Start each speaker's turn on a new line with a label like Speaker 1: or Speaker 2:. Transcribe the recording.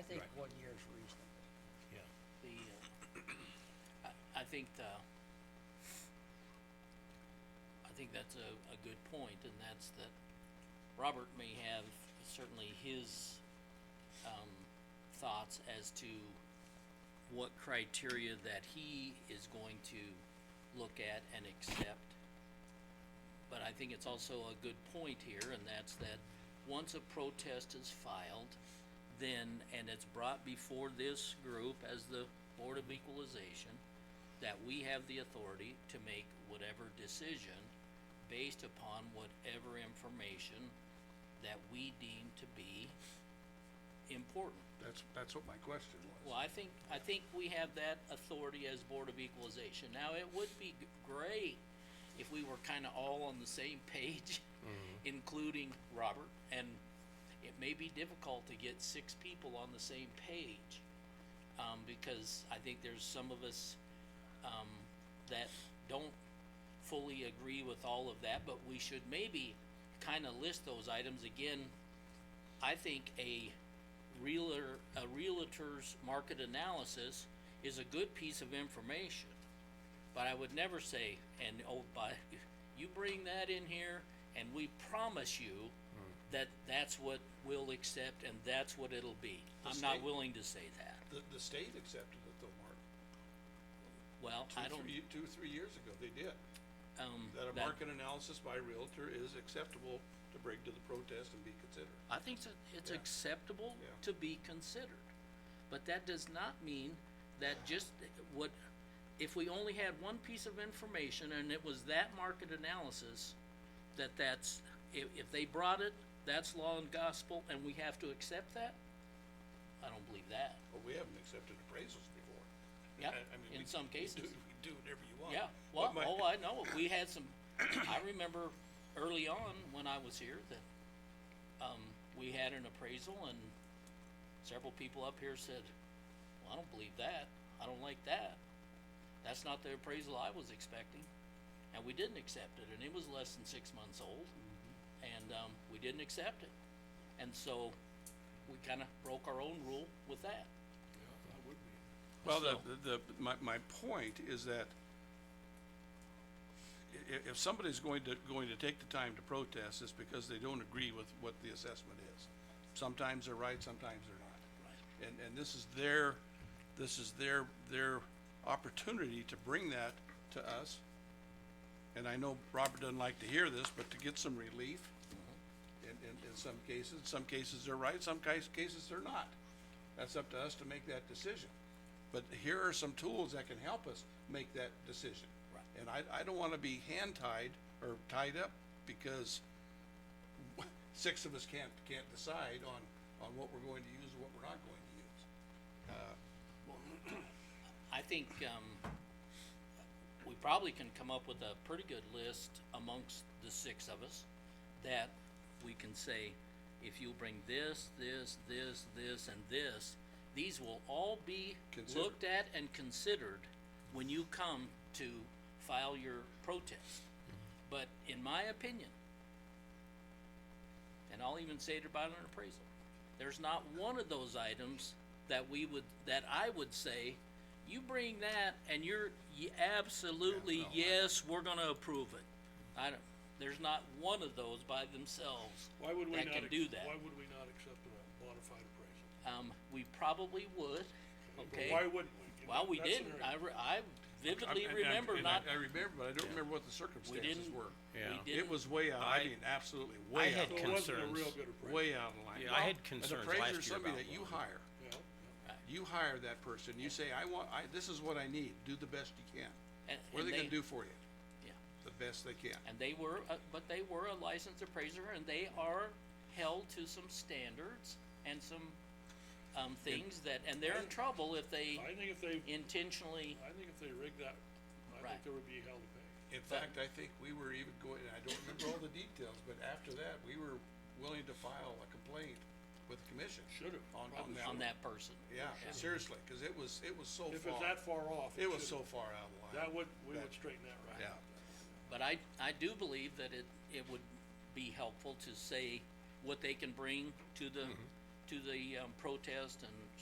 Speaker 1: uh, think the, I think that's a, a good point, and that's that Robert may have certainly his, um, thoughts as to what criteria that he is going to look at and accept. But I think it's also a good point here, and that's that once a protest is filed, then, and it's brought before this group as the Board of Equalization, that we have the authority to make whatever decision based upon whatever information that we deem to be important.
Speaker 2: That's, that's what my question
Speaker 1: Well,
Speaker 2: was.
Speaker 1: I think, I think we have that authority as Board of Equalization. Now, it would be g- great if we were kinda all on the same page, including Robert, and it may be difficult to get six people on the same page. Um, because I think there's some of us, um, that don't fully agree with all of that, but we should maybe kinda list those items again I think a realtor, a realtor's market analysis is a good piece of information. But I would never say, and oh, but you bring that in here and we promise you
Speaker 2: Hmm.
Speaker 1: that that's what we'll accept and that's what it'll be.
Speaker 2: The
Speaker 1: I'm not
Speaker 2: state-
Speaker 1: willing to say that.
Speaker 2: The, the state accepted it though, Mark.
Speaker 1: Well,
Speaker 2: Two,
Speaker 1: I don't,
Speaker 2: three- Two, three years ago, they did.
Speaker 1: um,
Speaker 2: That a
Speaker 1: that,
Speaker 2: market analysis by a Realtor is acceptable to bring to the protest and be considered.
Speaker 1: I think it's- it's
Speaker 2: Yeah.
Speaker 1: acceptable
Speaker 2: Yeah.
Speaker 1: to be considered. But that does not mean that just what, if we only had one piece of information and it was that market analysis, that that's, if, if they brought it, that's law and gospel and we have to accept that? I don't believe that.
Speaker 2: But we haven't accepted appraisals before. I-
Speaker 1: Yeah,
Speaker 2: I mean,
Speaker 1: in
Speaker 2: we-
Speaker 1: some
Speaker 2: we
Speaker 1: cases.
Speaker 2: do- We do whatever you want.
Speaker 1: Yeah,
Speaker 2: But
Speaker 1: well,
Speaker 2: my-
Speaker 1: oh, I know, we had some, I remember early on when I was here that, um, we had an appraisal and several people up here said, well, I don't believe that, I don't like that. That's not the appraisal I was expecting, and we didn't accept it, and it was less than six months old,
Speaker 2: Mm-hmm.
Speaker 1: and, um, we didn't accept it. And so, we kinda broke our own rule with that.
Speaker 2: Well, the,
Speaker 1: So-
Speaker 2: the, the- my, my point is that i- i- if somebody's going to, going to take the time to protest, it's because they don't agree with what the assessment is. Sometimes they're right, sometimes they're not. And, and this is their, this is their, their opportunity to bring that to us. And I know Robert doesn't like to hear this, but to get some relief in, in, in some cases, some cases they're right, some case, cases they're not. That's up to us to make that decision. But here are some tools that can help us make that decision.
Speaker 1: Right.
Speaker 2: And I, I don't wanna be hand tied or tied up because six of us can't, can't decide on, on what we're going to use and what we're not going to use.
Speaker 1: I think, um, we probably can come up with a pretty good list amongst the six of us that we can say, if you bring this, this, this, this, and this, these will all be
Speaker 2: Considered.
Speaker 1: looked at and considered when you come to file your protest. But in my opinion, and I'll even say it about an appraisal. There's not one of those items that we would, that I would say, you bring that and you're, you absolutely,
Speaker 2: Yeah, no, I-
Speaker 1: yes, we're gonna approve it. I don't, there's not one of those by themselves
Speaker 3: Why would we
Speaker 1: that
Speaker 3: not,
Speaker 1: can
Speaker 3: ac-
Speaker 1: do that.
Speaker 3: why would we not accept a modified appraisal?
Speaker 1: Um, we probably would,
Speaker 3: But
Speaker 1: okay?
Speaker 3: Why wouldn't we? You
Speaker 1: Well,
Speaker 3: know,
Speaker 1: we
Speaker 3: that's an
Speaker 1: didn't.
Speaker 3: area.
Speaker 1: I, re- I
Speaker 2: I-
Speaker 1: vividly
Speaker 2: and I-
Speaker 1: remember
Speaker 2: and I-
Speaker 1: not,
Speaker 2: I remember, but I don't remember what the
Speaker 1: we
Speaker 2: circumstances
Speaker 1: didn't,
Speaker 2: were.
Speaker 1: we
Speaker 4: Yeah. It
Speaker 1: didn't,
Speaker 2: It was way out, I
Speaker 4: I-
Speaker 2: mean, absolutely
Speaker 4: I
Speaker 2: way out.
Speaker 4: had
Speaker 2: of
Speaker 3: So
Speaker 2: line.
Speaker 3: it wasn't a real
Speaker 4: concerns.
Speaker 3: good appraisal.
Speaker 2: Way out of line.
Speaker 4: Yeah, I had
Speaker 2: Well,
Speaker 4: concerns
Speaker 2: An
Speaker 4: last
Speaker 2: appraiser
Speaker 4: year
Speaker 2: is somebody
Speaker 4: about
Speaker 2: that you
Speaker 4: one.
Speaker 2: hire.
Speaker 3: Yeah, yeah.
Speaker 2: You hire that person, you say, I want, I, this is what I need, do the best you can.
Speaker 1: and,
Speaker 2: What are
Speaker 1: and
Speaker 2: they
Speaker 1: they,
Speaker 2: gonna do for you?
Speaker 1: yeah,
Speaker 2: The best they can.
Speaker 1: and they were, uh, but they were a licensed appraiser and they are held to some standards and some, um, things that, and they're in trouble if they
Speaker 3: I think if they,
Speaker 1: intentionally,
Speaker 3: I think if they rigged that, I
Speaker 1: Right.
Speaker 3: think there would be hell to pay.
Speaker 2: In fact, I think we were even going, I don't remember all the details, but after that, we were willing to file a complaint with the commission.
Speaker 3: Should've,
Speaker 2: On, on
Speaker 3: probably
Speaker 2: that.
Speaker 1: on that person.
Speaker 2: Yeah, seriously, cause it was, it was so
Speaker 3: If it's
Speaker 2: far,
Speaker 3: that far off.
Speaker 2: it was so
Speaker 3: should've-
Speaker 2: far out of line.
Speaker 3: That would, we
Speaker 2: that-
Speaker 3: would straighten that right.
Speaker 2: Yeah.
Speaker 3: out.
Speaker 1: But I, I do believe that it, it would be
Speaker 2: Mm-hmm.
Speaker 1: helpful to say what they can bring to the, to the, um, protest and